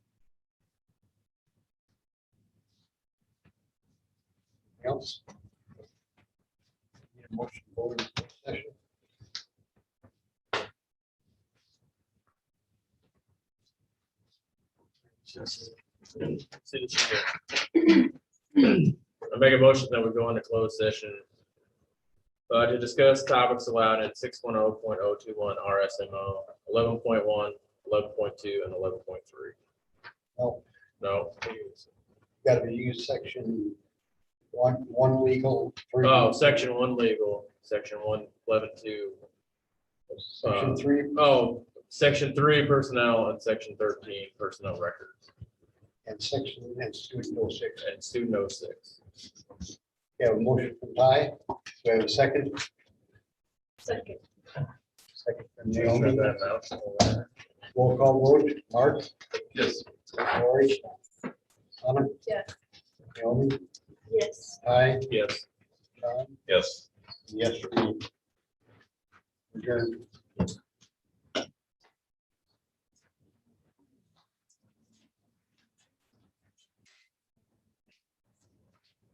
else? Need a Motion to go into closed session? City Engineer. I make a motion that we go into closed session. Uh, to discuss topics allowed at six one oh point oh two one RSMO, 11.1, 11.2, and eleven point three. No, No, gotta be used section one, one legal. three- oh, section one legal, section one, eleven two. Section three, Oh, section three personnel and section thirteen personnel records and section, and student oh six. and student oh six. We have a motion from Ty, we have a second, Second. second from Shut Naomi, that mouth. roll call vote, Mark, Yes. Lori. Simon, Yes. Naomi, Yes. Ty, Yes. John, Yes. yes, for me. Adjourned.